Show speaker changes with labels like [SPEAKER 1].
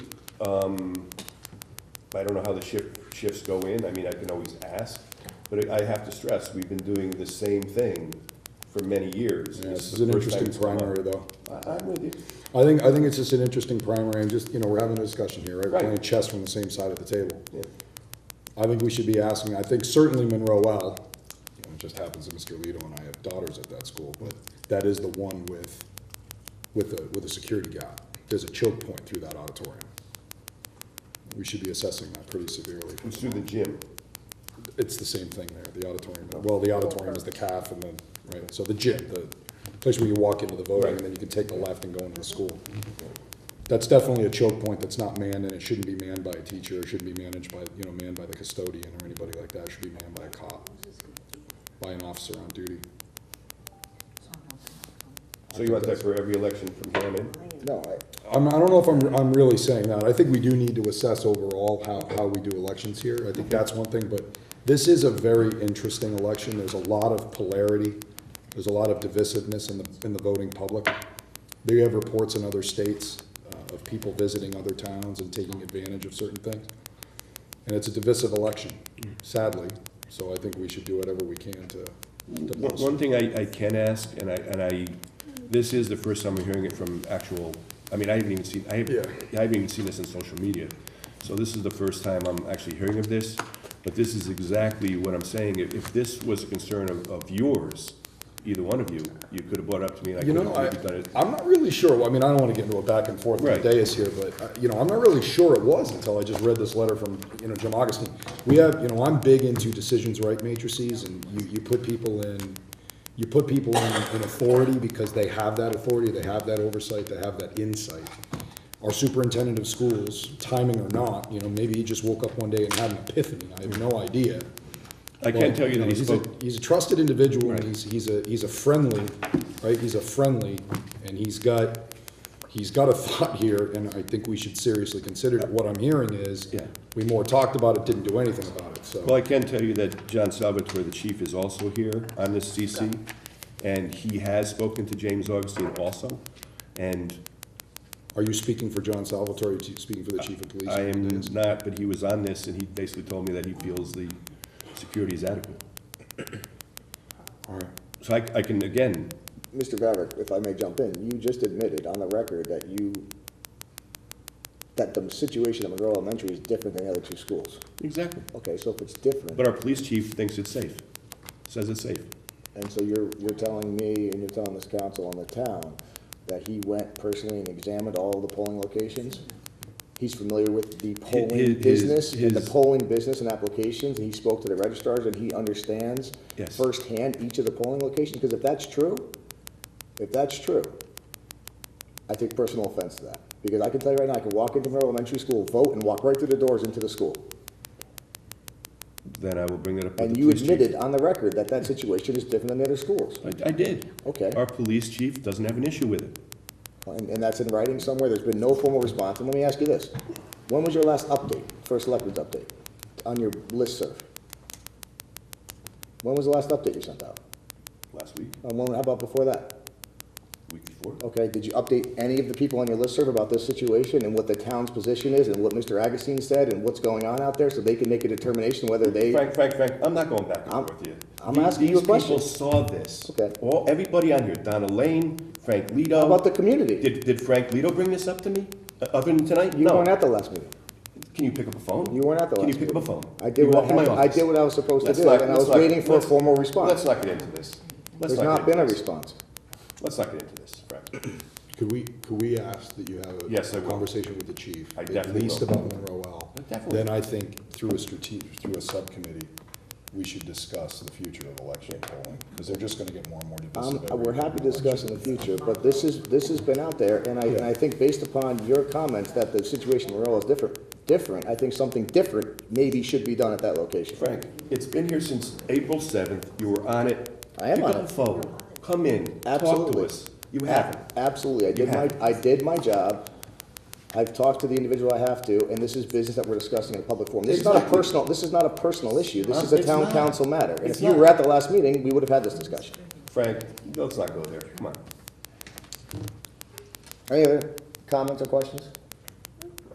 [SPEAKER 1] Um, I don't know how the shift, shifts go in, I mean, I can always ask, but I have to stress, we've been doing the same thing for many years.
[SPEAKER 2] Yeah, this
[SPEAKER 1] the
[SPEAKER 2] is an
[SPEAKER 1] first time
[SPEAKER 2] interesting
[SPEAKER 1] it's come up.
[SPEAKER 2] primary, though.
[SPEAKER 1] I, I'm with you,
[SPEAKER 2] I think, I think it's just an interesting primary, and just, you know, we're having a discussion here, right? We're
[SPEAKER 1] Right.
[SPEAKER 2] Playing chess from the same side of the table.
[SPEAKER 1] yeah,
[SPEAKER 2] I think we should be asking, I think certainly Monroe L, you know, it just happens that Mr. Lito and I have daughters at that school, but that is the one with, with a, with a security gap. There's a choke point through that auditorium. We should be assessing that pretty severely.
[SPEAKER 1] it's through the gym,
[SPEAKER 2] It's the same thing there, the auditorium, well, the auditorium is the calf and the, right, so the gym, the place where you walk into the voting, and then you can take the left and go into the school. That's definitely a choke point that's not manned, and it shouldn't be manned by a teacher, it shouldn't be managed by, you know, manned by the custodian or anybody like that, it should be manned by a cop, by an officer on duty.
[SPEAKER 1] so you want that for every election from Hammond?
[SPEAKER 2] No, I. I'm, I don't know if I'm, I'm really saying that, I think we do need to assess overall how, how we do elections here, I think that's one thing, but this is a very interesting election, there's a lot of polarity, there's a lot of divisiveness in the, in the voting public. They have reports in other states uh, of people visiting other towns and taking advantage of certain things. And it's a divisive election, sadly, so I think we should do whatever we can to, to
[SPEAKER 1] One
[SPEAKER 2] bolster.
[SPEAKER 1] one thing I, I can ask, and I, and I, this is the first time I'm hearing it from actual, I mean, I haven't even seen, I haven't,
[SPEAKER 2] Yeah.
[SPEAKER 1] I haven't even seen this on social media. So this is the first time I'm actually hearing of this, but this is exactly what I'm saying. If, if this was a concern of, of yours, either one of you, you could have brought it up to me and I
[SPEAKER 2] You
[SPEAKER 1] could
[SPEAKER 2] know, I,
[SPEAKER 1] have done it.
[SPEAKER 2] I'm not really sure, Well, I mean, I don't wanna get into a back and forth with
[SPEAKER 1] Right.
[SPEAKER 2] the dais here, but, uh, you know, I'm not really sure it was until I just read this letter from, you know, Jim Augustine. We have, you know, I'm big into decisions right matrices, and you, you put people in, you put people in, in authority because they have that authority, they have that oversight, they have that insight. Our superintendent of schools, timing or not, you know, maybe he just woke up one day and had an epiphany, I have no idea.
[SPEAKER 1] I can tell you that he
[SPEAKER 2] He's a-
[SPEAKER 1] spoke,
[SPEAKER 2] He's a trusted individual, and
[SPEAKER 1] Right.
[SPEAKER 2] he's, he's a, he's a friendly, right, he's a friendly, and he's got, he's got a thought here, and I think we should seriously consider it. What I'm hearing is,
[SPEAKER 1] Yeah.
[SPEAKER 2] we more talked about it, didn't do anything about it,
[SPEAKER 1] Well,
[SPEAKER 2] so.
[SPEAKER 1] I can tell you that John Salvatore, the chief, is also here on this CC, and he has spoken to James Augustine also. And
[SPEAKER 2] Are you speaking for John Salvatore, you speaking for the chief of police?
[SPEAKER 1] I am not, but he was on this, and he basically told me that he feels the security is adequate.
[SPEAKER 2] All right.
[SPEAKER 1] So I, I can, again,
[SPEAKER 3] Mr. Vavrick, if I may jump in, you just admitted on the record that you, that the situation at Monroe Elementary is different than the other two schools.
[SPEAKER 1] exactly.
[SPEAKER 3] Okay, so if it's different,
[SPEAKER 1] But our police chief thinks it's safe, says it's safe.
[SPEAKER 3] and so you're, you're telling me and you're telling this council and the town that he went personally and examined all the polling locations? He's familiar with the polling
[SPEAKER 1] his- his-
[SPEAKER 3] business and the
[SPEAKER 1] his-
[SPEAKER 3] polling business and applications, and he spoke to the registrars and he understands
[SPEAKER 1] Yes.
[SPEAKER 3] firsthand each of the polling locations, because if that's true, if that's true, I take personal offense to that. Because I can tell you right now, I can walk into Monroe Elementary School, vote, and walk right through the doors into the school.
[SPEAKER 1] Then I will bring it up with
[SPEAKER 3] And
[SPEAKER 1] the
[SPEAKER 3] you
[SPEAKER 1] police chief.
[SPEAKER 3] admitted on the record that that situation is different than the other schools.
[SPEAKER 1] I, I did.
[SPEAKER 3] Okay.
[SPEAKER 1] Our police chief doesn't have an issue with it.
[SPEAKER 3] And, and that's in writing somewhere, there's been no formal response, and let me ask you this. When was your last update, first selectmen's update, on your listserv? When was the last update you sent out?
[SPEAKER 1] Last week,
[SPEAKER 3] And when, how about before that?
[SPEAKER 1] week before.
[SPEAKER 3] Okay, did you update any of the people on your listserv about this situation and what the town's position is and what Mr. Agustin said and what's going on out there so they can make a determination whether they,
[SPEAKER 1] Frank, Frank, Frank, I'm not going back and
[SPEAKER 3] I'm-
[SPEAKER 1] forth with you.
[SPEAKER 3] I'm
[SPEAKER 1] These-
[SPEAKER 3] asking you a question.
[SPEAKER 1] These people saw this.
[SPEAKER 3] Okay.
[SPEAKER 1] All, everybody on here, Donna Lane, Frank Lido.
[SPEAKER 3] How about the community?
[SPEAKER 1] um, Did, did Frank Lido bring this up to me, Uh, other than tonight?
[SPEAKER 3] you
[SPEAKER 1] No.
[SPEAKER 3] weren't at the last meeting.
[SPEAKER 1] Can you pick up a phone?
[SPEAKER 3] You weren't at the last
[SPEAKER 1] Can you
[SPEAKER 3] meeting.
[SPEAKER 1] pick up a phone?
[SPEAKER 3] I
[SPEAKER 1] You
[SPEAKER 3] did what
[SPEAKER 1] walked in my
[SPEAKER 3] I, I
[SPEAKER 1] office.
[SPEAKER 3] did what I was supposed to
[SPEAKER 1] Let's
[SPEAKER 3] do,
[SPEAKER 1] not-
[SPEAKER 3] and I
[SPEAKER 1] let's
[SPEAKER 3] was
[SPEAKER 1] not-
[SPEAKER 3] waiting for a
[SPEAKER 1] let's-
[SPEAKER 3] formal
[SPEAKER 1] Let's
[SPEAKER 3] response.
[SPEAKER 1] not get into this. Let's
[SPEAKER 3] There's not
[SPEAKER 1] get
[SPEAKER 3] been a
[SPEAKER 1] into this.
[SPEAKER 3] response.
[SPEAKER 1] Let's not get into this, Frank.
[SPEAKER 2] Could we, could we ask that you have a
[SPEAKER 1] Yes, I will.
[SPEAKER 2] conversation with the chief?
[SPEAKER 1] I definitely
[SPEAKER 2] At least
[SPEAKER 1] will.
[SPEAKER 2] about Monroe L.
[SPEAKER 1] I definitely
[SPEAKER 2] Then I think through a strategic, through a subcommittee, we should discuss the future of election polling, because they're just gonna get more and more
[SPEAKER 3] Um,
[SPEAKER 2] divisive. every
[SPEAKER 3] we're happy to
[SPEAKER 2] election.
[SPEAKER 3] discuss in the future, but this is, this has been out there, and I, and I think based upon your comments that the situation in Morel is different, different, I think something different maybe should be done at that location.
[SPEAKER 1] Frank, it's been here since April seventh, you were on it.
[SPEAKER 3] I am on
[SPEAKER 1] Pick up
[SPEAKER 3] it.
[SPEAKER 1] the phone, come in, talk to
[SPEAKER 3] Absolutely.
[SPEAKER 1] us. You haven't.
[SPEAKER 3] Absolutely, I did my,
[SPEAKER 1] have.
[SPEAKER 3] I did my job, I've talked to the individual I have to, and this is business that we're discussing in a public forum. This is not a
[SPEAKER 1] Exactly.
[SPEAKER 3] personal, this is not a personal issue, this
[SPEAKER 1] Um,
[SPEAKER 3] is a
[SPEAKER 1] it's
[SPEAKER 3] town
[SPEAKER 1] not.
[SPEAKER 3] council matter. And
[SPEAKER 1] It's
[SPEAKER 3] if you were
[SPEAKER 1] not.
[SPEAKER 3] at the last meeting, we would have had this discussion.
[SPEAKER 1] Frank, let's not go there, come on.
[SPEAKER 3] Any other comments or questions?